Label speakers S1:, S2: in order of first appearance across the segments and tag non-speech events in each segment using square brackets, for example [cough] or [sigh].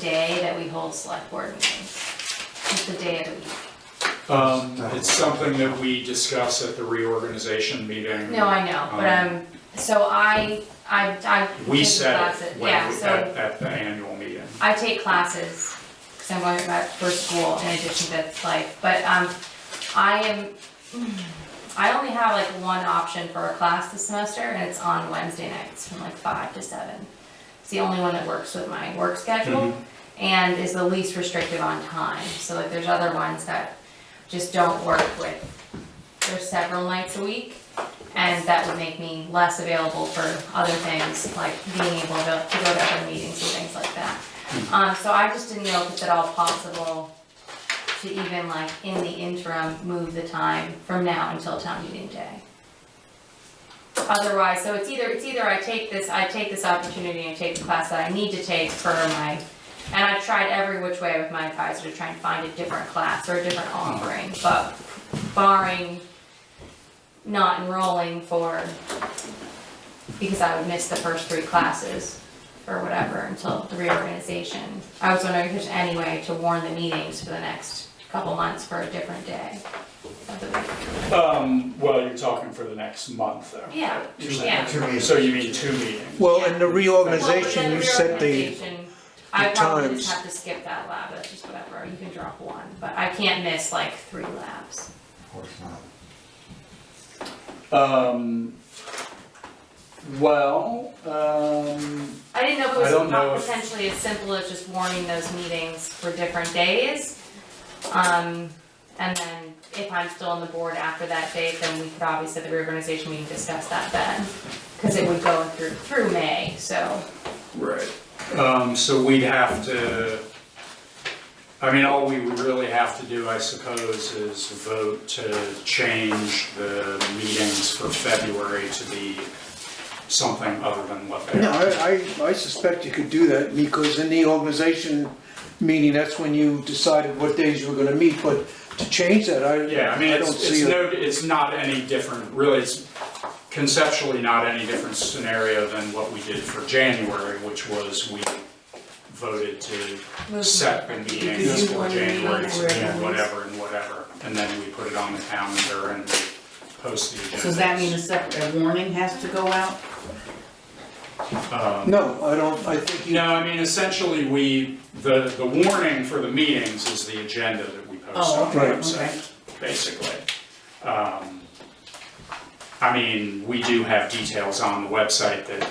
S1: day that we hold select board meetings. It's the day of the week.
S2: Um,
S3: uh,
S2: it's something that we discuss at the reorganization meeting.
S1: No, I know, but, um, so I, I, I.
S2: We
S1: take
S2: said
S1: classes-
S2: it when,
S1: Yeah,
S2: we- at,
S1: so
S2: at the annual meeting.
S1: I take classes, cause I'm going back for school in addition to life, but, um, I am, I only have like one option for a class this semester, and it's on Wednesday nights from like five to seven. It's the only one that works with my work schedule and is the least restrictive on time. So like there's other ones that just don't work with, there's several nights a week. And that would make me less available for other things, like being able to to go to other meetings and things like that. Um, so I just didn't know if it's at all possible to even like in the interim, move the time from now until town meeting day. Otherwise, so it's either, it's either I take this, I take this opportunity and take the class that I need to take for my, and I've tried every which way with my advisor to try and find a different class or a different offering, but barring not enrolling for, because I would miss the first three classes or whatever until the reorganization. I was wondering if there's any way to warn the meetings for the next couple months for a different day of the week.
S2: Um, well, you're talking for the next month though.
S1: Yeah,
S2: You're
S1: yeah.
S2: saying-
S3: Two meetings.
S2: So you mean two meetings?
S4: Well, in the
S1: Well, but then
S4: reorganization, you set the,
S1: reorganization, I probably
S4: times.
S1: just have to skip that lab, that's just whatever, you can drop one, but I can't miss like three labs.
S3: Of course not.
S2: Um, well, um,
S1: I didn't know if
S2: I
S1: it
S2: don't
S1: was
S2: know
S1: not
S2: if-
S1: potentially as simple as just warning those meetings for different days. Um, and then if I'm still on the board after that date, then we could obviously, at the reorganization, we can discuss that then. Cause it would go through, through May, so,
S2: Right. Um, so we'd have to, I mean, all we would really have to do, I suppose, is vote to change the meetings for February to be something other than what they
S4: no,
S2: are.
S4: I, I I suspect you could do that, because in the organization meeting, that's when you decided what days you were gonna meet, but to change that, I,
S2: Yeah, I mean,
S4: I don't
S2: it's, it's
S4: see it.
S2: no, it's not any different, really, it's conceptually not any different scenario than what we did for January, which was we voted to
S1: Move.
S2: set the meetings
S5: Because you
S2: for
S5: want to meet
S2: January to
S5: everyone.
S2: do whatever and whatever, and then we put it on the calendar and we post the agenda.
S5: So does that mean a separate, a warning has to go out?
S4: No, I don't, I think you,
S2: No, I mean, essentially, we, the, the warning for the meetings is the agenda that we post
S5: Oh,
S2: on the
S5: okay,
S2: website, basically. Um, I mean, we do have details on the website that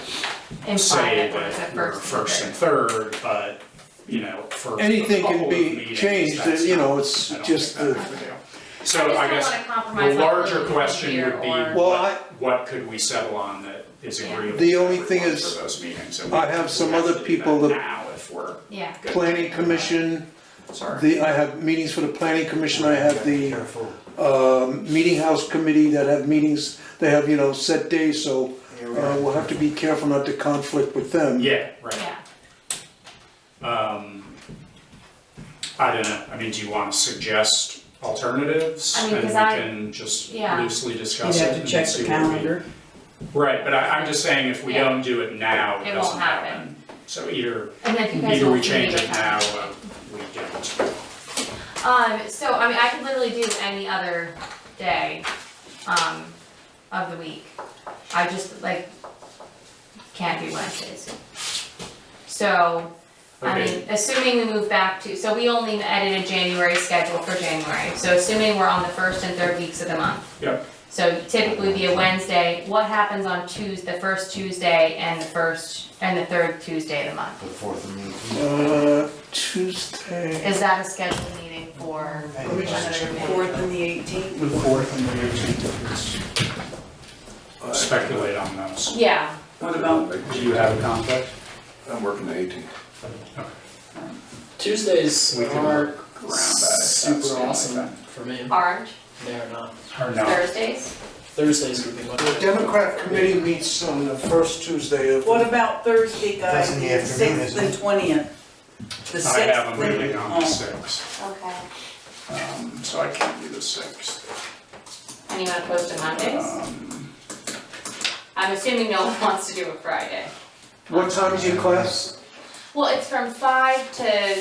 S1: imply
S2: say
S1: that we're the
S2: that we're first
S1: first
S2: and third, but, you know, for a
S4: anything
S2: couple
S4: can
S2: of
S4: be
S2: meetings,
S4: changed,
S2: that's
S4: you know,
S2: not-
S4: it's
S2: I don't
S4: just,
S2: think
S4: the-
S2: that big a deal. So
S1: I just don't
S2: I guess
S1: wanna compromise.
S2: the
S1: like,
S2: larger
S1: leaving
S2: question
S1: here
S2: would be,
S1: or-
S4: Well,
S2: what, what could we settle on that is
S1: Yeah.
S2: agreeable
S4: The
S2: to
S4: only thing
S2: everyone
S4: is,
S2: for those meetings? and
S4: I
S2: we-
S4: have
S2: we
S4: some
S2: to
S4: other
S2: do
S4: people that-
S2: Now, if we're.
S1: Yeah,
S2: good.
S1: Uh,
S4: planning commission,
S2: Sorry.
S4: the, I have meetings for the planning commission, I have the
S3: Careful.
S4: um, meeting house committee that have meetings, they have, you know, set days, so
S3: Yeah,
S4: uh,
S3: we are.
S4: we'll have to be careful not to conflict with them.
S2: Yeah, right.
S1: yeah.
S2: Um, I don't know, I mean, do you want to suggest alternatives?
S1: I mean, 'cause I-
S2: And we can just
S1: Yeah.
S2: loosely
S5: You'd
S2: discuss it
S5: have to
S2: and
S5: check
S2: see
S5: the
S2: what we-
S5: calendar.
S2: Right, but I, I'm just saying if we
S1: Yeah.
S2: don't do it now, it
S1: It won't
S2: doesn't
S1: happen.
S2: happen. So either,
S1: And then if you guys
S2: either
S1: want
S2: we
S1: to
S2: change
S1: meet
S2: it
S1: or
S2: now, uh,
S1: not.
S2: or we don't.
S1: Um, so, I mean, I could literally do any other day, um, of the week. I just, like, can't do Wednesdays. So, I
S2: Okay.
S1: mean, assuming we move back to, so we only edited January schedule for January, so assuming we're on the first and third weeks of the month.
S2: Yep.
S1: So typically be a Wednesday, what happens on Tues, the first Tuesday and the first, and the third Tuesday of the month?
S3: The fourth of May.
S4: Uh, Tuesday,
S1: Is that a scheduled meeting for
S3: Let me just
S1: another meeting?
S5: Fourth and the eighteenth.
S2: The fourth and the eighteenth. Speculate on those.
S1: Yeah,
S5: What about
S2: Do you have a conflict?
S6: I'm working the 18th.
S7: Tuesdays
S2: We can
S7: are
S2: around that if that's the
S7: super
S2: only
S7: awesome
S2: thing.
S7: for me.
S1: orange,
S7: They are not.
S2: Or no?
S1: Thursdays?
S7: Thursdays would be much
S4: the
S7: better.
S4: Democrat committee meets on the first Tuesday of.
S5: What about Thursday,
S3: That's
S5: guys,
S3: in the
S5: the
S3: afternoon,
S5: sixth
S3: isn't
S5: and
S3: it?
S5: twentieth? The
S2: I
S5: sixth
S2: have a
S5: and-
S2: meeting on the
S5: oh.
S2: sixth,
S1: Okay.
S2: um, so I can't do the sixth.
S1: And you wanna post it Mondays?
S2: Um,
S1: [laughs] I'm assuming no one wants to do a Friday.
S4: What time is your class?
S1: Well, it's from five to